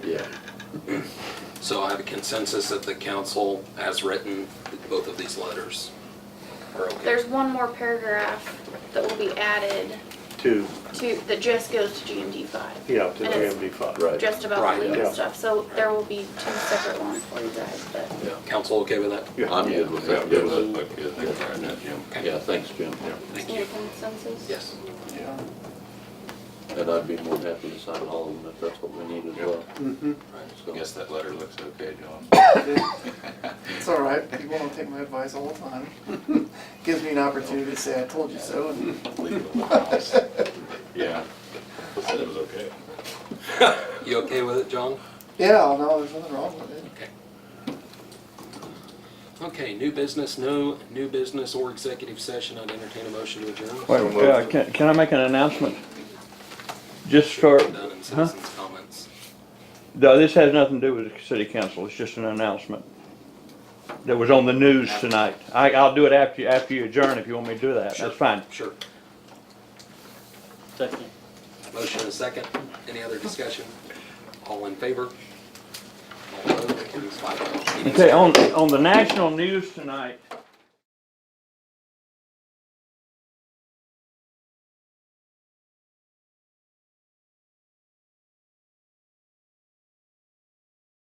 So I have a consensus that the council, as written, that both of these letters are okay. There's one more paragraph that will be added to, to, that just goes to GMD five. yeah, to And it's- GMD five. Right. Just about Right, the yeah. legal stuff, so there will be two separate ones for you guys, but. Council okay with that? Yeah. I'm good with that. Yeah, good with that. Yeah, thank you for adding that, Jim. Okay. Yeah, thanks, Jim. Thank Any you. consensus? Yes. And I'd be more than happy to sign all of them if that's what we need as well. Mm-hmm. I So, guess that letter looks okay, John. It's all right. People don't take my advice all the time. Gives me an opportunity to say I told you so. And Leave it alone. Yeah, I said it was okay. You okay with it, John? yeah, no, there's nothing wrong with it. Okay. Okay, new business, no new business or executive session. I'd entertain a motion to adjourn. Wait, uh, can, can I make an announcement? Just for, Done in huh? citizens' comments. No, this has nothing to do with the city council, it's just an announcement that was on the news tonight. I, I'll do it after, you after you adjourn if you want me to do that, Sure. that's fine. Sure. Second. Motion and a second. Any other discussion? All in favor? All opposed? Meeting's Okay, on, on the national news tonight,